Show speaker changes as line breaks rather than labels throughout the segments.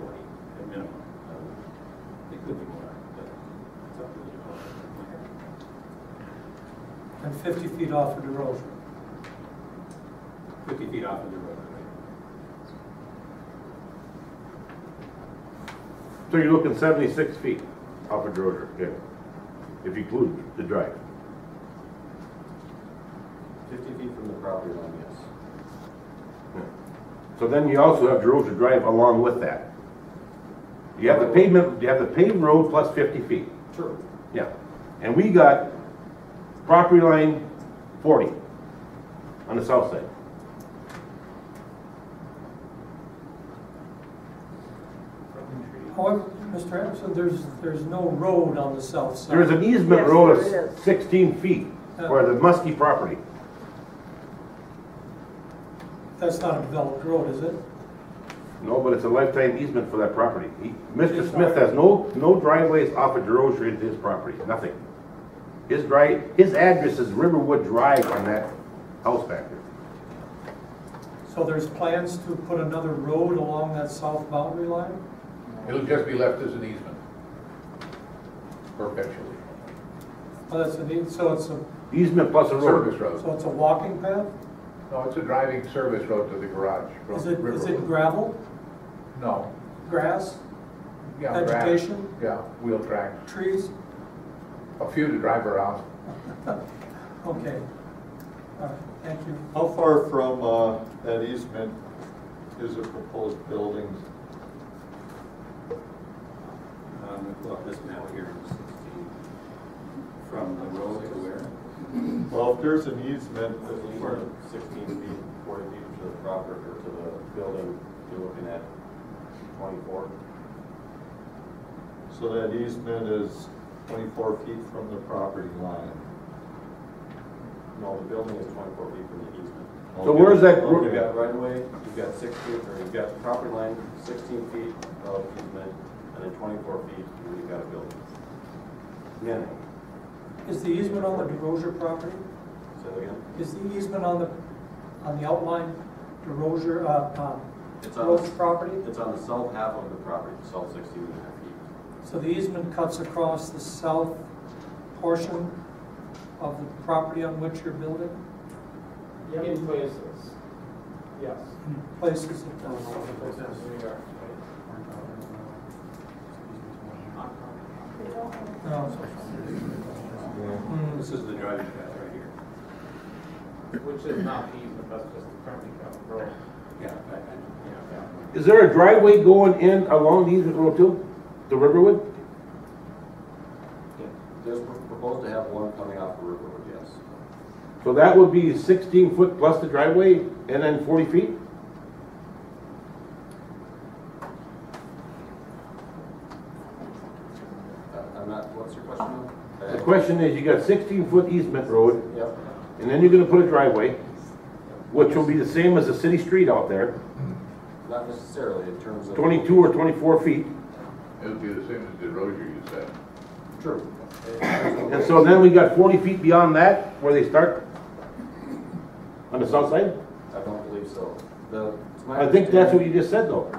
Uh,
and 50 feet off of the rosary.
50 feet off of the road, right?
So you're looking seventy-six feet off of Droger, yeah, if you include the drive.
50 feet from the property line, yes.
Yeah. So then you also have Droger Drive along with that. You have the pavement, you have the paved road plus fifty feet,
True.
yeah. And we got property line forty on the south side.
However, Mr. Oh, Anderson, there's, there's no road on the south side.
There is an easement
Yes,
road
there is. Uh.
of sixteen feet for the Muskie property.
That's not a developed road, is it?
No, but it's a lifetime easement for that property. He, Mr.
It's
Smith
not.
has no, no driveways off of DeRozier into his property, nothing. His drive, his address is Riverwood Drive on that house back there.
So there's plans to put another road along that south boundary line?
It'll just be left as an easement perpetually.
Oh, that's a neat, so it's a,
Easement plus a
Service
road.
so
road.
it's a walking path?
No, it's a driving service road to the garage. from
Is it, is
River
it
Road.
gravel,
No.
grass,
Yeah, grass.
Vegetation?
Yeah, wheel tracks.
trees?
A few to drive around.
Okay. All right, thank you.
How far from uh, that easement is a proposed building?
Um, if you Look, this map here is 16, from the road to where?
Well, if there's an easement,
These
for-
are 16 feet, 40 feet to the property, or to the building, you're looking at 24.
so that easement is 24 feet from the property line.
No, the building is 24 feet from the easement.
So where's that
Well,
road?
You've got right of way, you've got six feet, or you've got the property line, 16 feet of easement, and then 24 feet, and then you've got a building. Yeah.
Is the easement on the DeRozier property?
Say that again?
Is the easement on the, on the outline DeRozier, uh, um,
It's on
Rose
the,
property?
it's on the south half of the property, the south 16 and a half feet.
So the easement cuts across the south portion of the property on which you're building?
In places, yes.
In Places it does. No. Hmm,
This is the driving path right here.
Which is not easement, that's just the currently covered road.
Yeah, I- I- yeah,
Is there a driveway going in along the easement road too, to Riverwood?
There's pro- proposed to have one coming off the river, yes.
So that would be sixteen foot plus the driveway and then forty feet?
Uh, I'm not, what's your question? Uh,
The question is, you got sixteen foot easement road
Yep.
and then you're gonna put a driveway, which will be the same as the city street out there,
Not necessarily in terms of.
twenty-two or twenty-four feet.
It'll be the same as the road you said.
True.
And so then we got forty feet beyond that, where they start? On the south side?
I don't believe so. The. it's my
I think that's what you
understanding
just said though,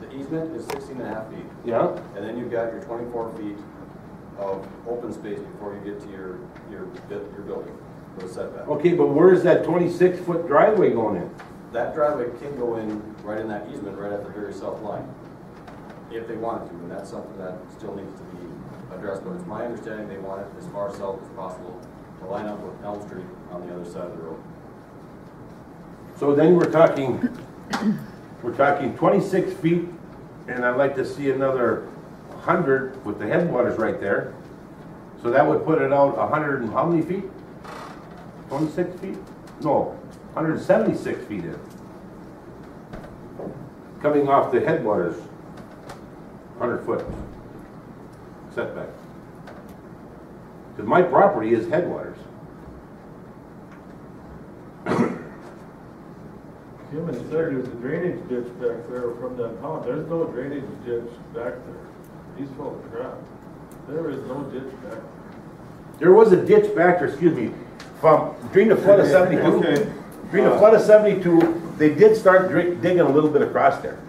The easement is 16 and a half feet,
yeah?
and then you've got your twenty-four feet of open space before you get to your, your, bu- your building, for the setback.
Okay, but where's that twenty-six foot driveway going in?
That driveway can go in right in that easement, right at the very south line, if they wanted to, and that's something that still needs to be addressed, but it's my understanding they want it as far south as possible to line up with Elm Street on the other side of the road.
So then we're talking, we're talking twenty-six feet, and I'd like to see another hundred with the headwaters right there. So that would put it out hundred and how many feet? Twenty-six feet? No, hundred and seventy-six feet in. Coming off the headwaters, hundred foot setback. Because my property is headwaters.
Jim had said there's a drainage ditch back there from that pond, there's no drainage ditch back there. He's full of crap. There is no ditch back there.
There was a ditch back there, excuse me, from, during the flood of seventy-two,
Okay.
during the flood of seventy-two, they did start dri- digging a little bit across there.